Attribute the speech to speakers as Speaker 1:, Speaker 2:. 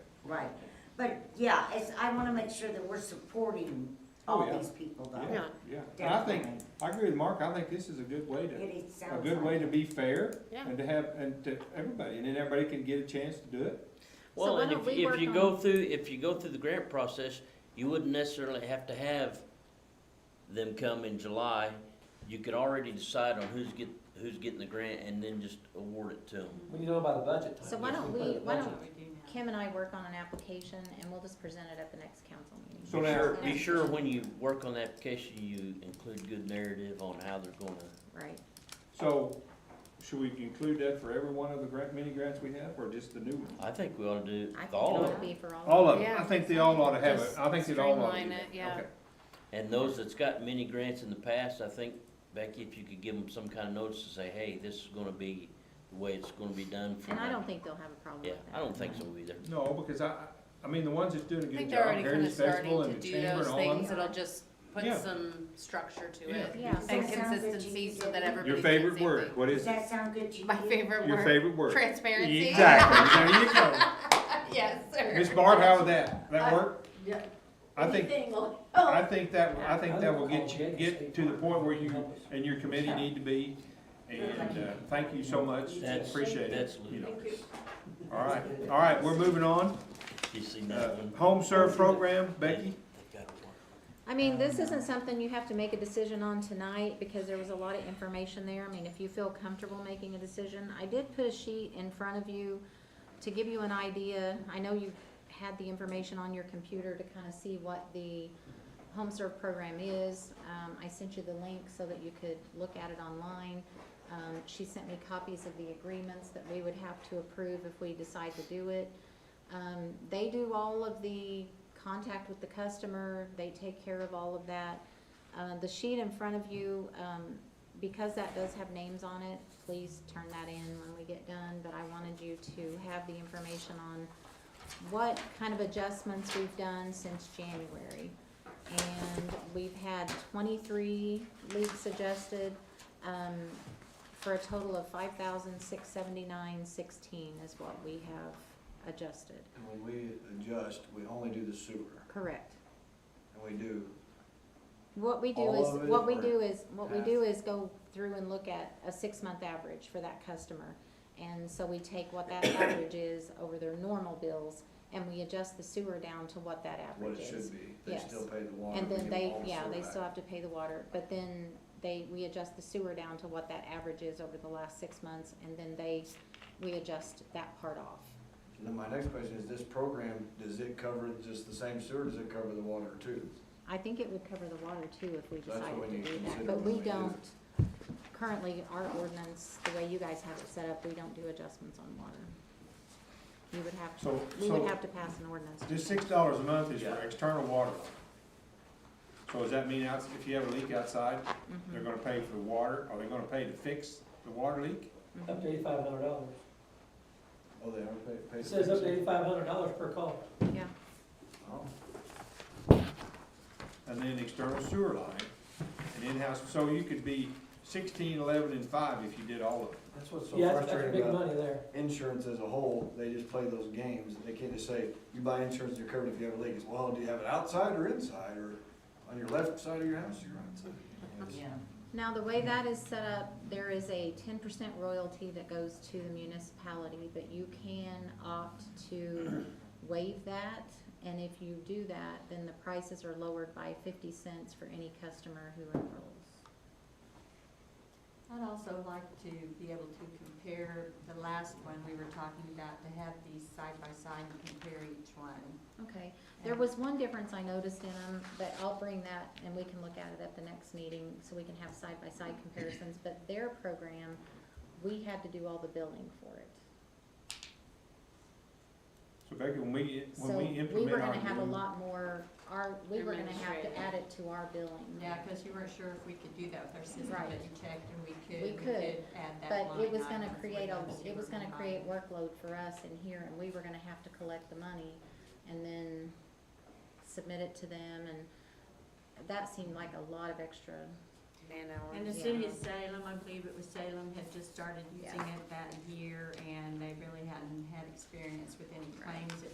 Speaker 1: right. But yeah, it's, I wanna make sure that we're supporting
Speaker 2: Oh,
Speaker 1: all
Speaker 2: yeah.
Speaker 1: these people though.
Speaker 2: Yeah,
Speaker 3: Yeah.
Speaker 2: yeah. And I think,
Speaker 1: Definitely.
Speaker 2: I agree with Mark, I think this is a good way
Speaker 1: It,
Speaker 2: to,
Speaker 1: it
Speaker 2: a
Speaker 1: sounds
Speaker 2: good way
Speaker 1: like
Speaker 2: to
Speaker 1: it.
Speaker 2: be fair
Speaker 3: Yeah.
Speaker 2: and to have, and to everybody, and then everybody can get a chance to do it.
Speaker 4: Well,
Speaker 3: why
Speaker 4: and
Speaker 3: don't
Speaker 4: if,
Speaker 3: we
Speaker 4: if
Speaker 3: work
Speaker 4: you go
Speaker 3: on-
Speaker 4: through, if you go through the grant process, you wouldn't necessarily have to have them come in July. You could already decide on who's get, who's getting the grant and then just award it to them.
Speaker 5: When you know about the budget time.
Speaker 6: So why
Speaker 5: yes,
Speaker 6: don't
Speaker 5: put
Speaker 6: we-
Speaker 5: a
Speaker 6: why
Speaker 5: budget-
Speaker 6: don't- Kim and I work on an application and we'll just present it at the next council meeting.
Speaker 2: So now,
Speaker 4: Be sure when you work on the application, you include good narrative on how they're gonna,
Speaker 6: Right,
Speaker 2: so should we include that for every one of the grant, mini grants we have, or just the new ones?
Speaker 4: I think we ought to do
Speaker 6: I think it
Speaker 4: all of
Speaker 6: ought to
Speaker 4: them.
Speaker 6: be for all.
Speaker 2: All of
Speaker 3: them.
Speaker 2: them,
Speaker 3: Yeah.
Speaker 2: I think they all ought to have it,
Speaker 3: Just
Speaker 2: I think they all ought to.
Speaker 3: streamline
Speaker 2: do
Speaker 3: it,
Speaker 2: that.
Speaker 3: yeah.
Speaker 2: Okay.
Speaker 4: And those that's got many grants in the past, I think, Becky, if you could give them some kind of notice to say, hey, this is gonna be the way it's gonna be done for
Speaker 6: And I
Speaker 4: now."
Speaker 6: don't think they'll have a problem with
Speaker 4: Yeah,
Speaker 6: that.
Speaker 4: I don't think so either.
Speaker 2: No, because I, I- I mean, the ones that's doing a
Speaker 3: I
Speaker 2: good
Speaker 3: think they're
Speaker 2: job,
Speaker 3: already kind of
Speaker 2: Heritage Festival
Speaker 3: starting to
Speaker 2: and the
Speaker 3: do
Speaker 2: Chamber
Speaker 3: those
Speaker 2: and all them.
Speaker 3: things, it'll just put
Speaker 2: Yeah.
Speaker 3: some structure to
Speaker 2: Yeah.
Speaker 3: it.
Speaker 6: Yeah.
Speaker 1: Does
Speaker 3: And
Speaker 1: that sound good to you,
Speaker 3: consistency so that
Speaker 1: Debbie?
Speaker 3: everybody.
Speaker 2: Your
Speaker 3: saying
Speaker 2: favorite
Speaker 3: same
Speaker 2: word,
Speaker 3: thing.
Speaker 2: what
Speaker 1: Does
Speaker 2: is it?
Speaker 1: that sound good to you?
Speaker 3: My favorite
Speaker 2: Your
Speaker 3: word,
Speaker 2: favorite word.
Speaker 3: transparency.
Speaker 2: Exactly, there you go.
Speaker 3: Yes, sir.
Speaker 2: Miss Barb, how would that, that
Speaker 3: I-
Speaker 2: work?
Speaker 7: yeah.
Speaker 2: I think,
Speaker 7: Anything on-
Speaker 2: I think that, I think that will
Speaker 5: would
Speaker 2: get
Speaker 5: call
Speaker 2: you,
Speaker 5: Jake
Speaker 2: get
Speaker 5: State
Speaker 2: to the
Speaker 5: Park
Speaker 2: point where
Speaker 5: and
Speaker 2: you
Speaker 5: help us.
Speaker 2: and your committee need to be. And, uh, thank you so much,
Speaker 4: That's-
Speaker 2: appreciate it,
Speaker 4: that's
Speaker 2: you know.
Speaker 7: Thank you.
Speaker 2: All right, all right, we're moving on.
Speaker 4: You seen
Speaker 2: Uh,
Speaker 4: that one?
Speaker 2: home serve program, Becky?
Speaker 4: They've got one.
Speaker 6: I mean, this isn't something you have to make a decision on tonight, because there was a lot of information there, I mean, if you feel comfortable making a decision, I did put a sheet in front of you to give you an idea, I know you had the information on your computer to kind of see what the home serve program is, um, I sent you the link so that you could look at it online. Um, she sent me copies of the agreements that we would have to approve if we decide to do it. Um, they do all of the contact with the customer, they take care of all of that. Uh, the sheet in front of you, um, because that does have names on it, please turn that in when we get done, but I wanted you to have the information on what kind of adjustments we've done since January. And we've had twenty-three leaks adjusted, um, for a total of five thousand six seventy-nine sixteen is what we have adjusted.
Speaker 8: And when we adjust, we only do the sewer,
Speaker 6: Correct.
Speaker 8: and we do,
Speaker 6: What we do
Speaker 8: All
Speaker 6: is,
Speaker 8: of it
Speaker 6: what we
Speaker 8: or
Speaker 6: do is, what we
Speaker 8: half?
Speaker 6: do is go through and look at a six-month average for that customer. And so we take what that average is over their normal bills, and we adjust the sewer down to what that
Speaker 8: what
Speaker 6: average
Speaker 8: it
Speaker 6: is.
Speaker 8: should be, they
Speaker 6: Yes.
Speaker 8: still pay the water.
Speaker 6: And
Speaker 8: we
Speaker 6: then
Speaker 8: give
Speaker 6: they,
Speaker 8: all the
Speaker 6: yeah,
Speaker 8: sewer
Speaker 6: they
Speaker 8: back.
Speaker 6: still have to pay the water, but then they, we adjust the sewer down to what that average is over the last six months, and then they, we adjust that part off.
Speaker 8: And Then my next question is, this program, does it cover just the same sewer, does it cover the water too?
Speaker 6: I think it would cover the water too if we
Speaker 8: So that's what
Speaker 6: decided
Speaker 8: we need
Speaker 6: to
Speaker 8: to
Speaker 6: do that,
Speaker 8: consider
Speaker 6: but we
Speaker 8: when we do it.
Speaker 6: don't, currently, our ordinance, the way you guys have it set up, we don't do adjustments on water. You would have, to-
Speaker 2: So,
Speaker 6: we would
Speaker 2: so,
Speaker 6: have to pass an ordinance. to
Speaker 2: this
Speaker 6: change
Speaker 2: six dollars a month is for
Speaker 8: Yeah.
Speaker 2: external water. So does that mean outs- if you have a leak outside,
Speaker 6: it. Mhm.
Speaker 2: they're gonna pay for the water, are they gonna pay to fix the water leak?
Speaker 6: Mm-hmm.
Speaker 5: Up to eighty-five hundred dollars.
Speaker 8: Oh, they are pay, pay.
Speaker 5: It says up to eighty-five hundred dollars per call.
Speaker 6: Yeah,
Speaker 8: Oh,
Speaker 2: and then external sewer line, and in-house, so you could be sixteen, eleven, and five if you did all of it.
Speaker 8: that's what's so
Speaker 5: Yeah, that's, that's
Speaker 8: frustrating
Speaker 5: big
Speaker 8: about
Speaker 5: money there.
Speaker 8: insurance as a whole, they just play those games, they can't just say, you buy insurance, you're covered if you have a leak, it's, well, do you have it outside or inside, or on your left side of your house, you're outside. You know, it's-
Speaker 1: Yeah.
Speaker 6: now, the way that is set up, there is a ten percent royalty that goes to the municipality, but you can opt to waive that. And if you do that, then the prices are lowered by fifty cents for any customer who enrolls.
Speaker 7: I'd also like to be able to compare the last one we were talking about, to have these side by side and compare each one.
Speaker 6: Okay, there was one difference I noticed in them, but I'll bring that and we can look at it at the next meeting, so we can have side-by-side comparisons, but their program, we had to do all the billing for it.
Speaker 2: So Becky, when we,
Speaker 6: So
Speaker 2: when we
Speaker 6: we were
Speaker 2: implement our
Speaker 6: gonna have a
Speaker 2: new,
Speaker 6: lot more, our, we were gonna have
Speaker 3: Administrative.
Speaker 6: to add it to our billing.
Speaker 7: Yeah, because you weren't sure if we could do that with our system, but
Speaker 6: Right.
Speaker 7: you checked and we could,
Speaker 6: We
Speaker 7: we
Speaker 6: could,
Speaker 7: could add that
Speaker 6: But
Speaker 7: line.
Speaker 6: it was
Speaker 7: item
Speaker 6: gonna
Speaker 7: with
Speaker 6: create a,
Speaker 7: those you
Speaker 6: it was
Speaker 7: were
Speaker 6: gonna create
Speaker 7: combining.
Speaker 6: workload for us in here, and we were gonna have to collect the money and then submit it to them, and that seemed like a lot of extra.
Speaker 3: Man hours.
Speaker 7: And the
Speaker 6: Yeah.
Speaker 7: city of Salem, I believe it was Salem, had just started using
Speaker 6: Yeah.
Speaker 7: it that year, and they really hadn't had experience with any
Speaker 6: Right.
Speaker 7: claims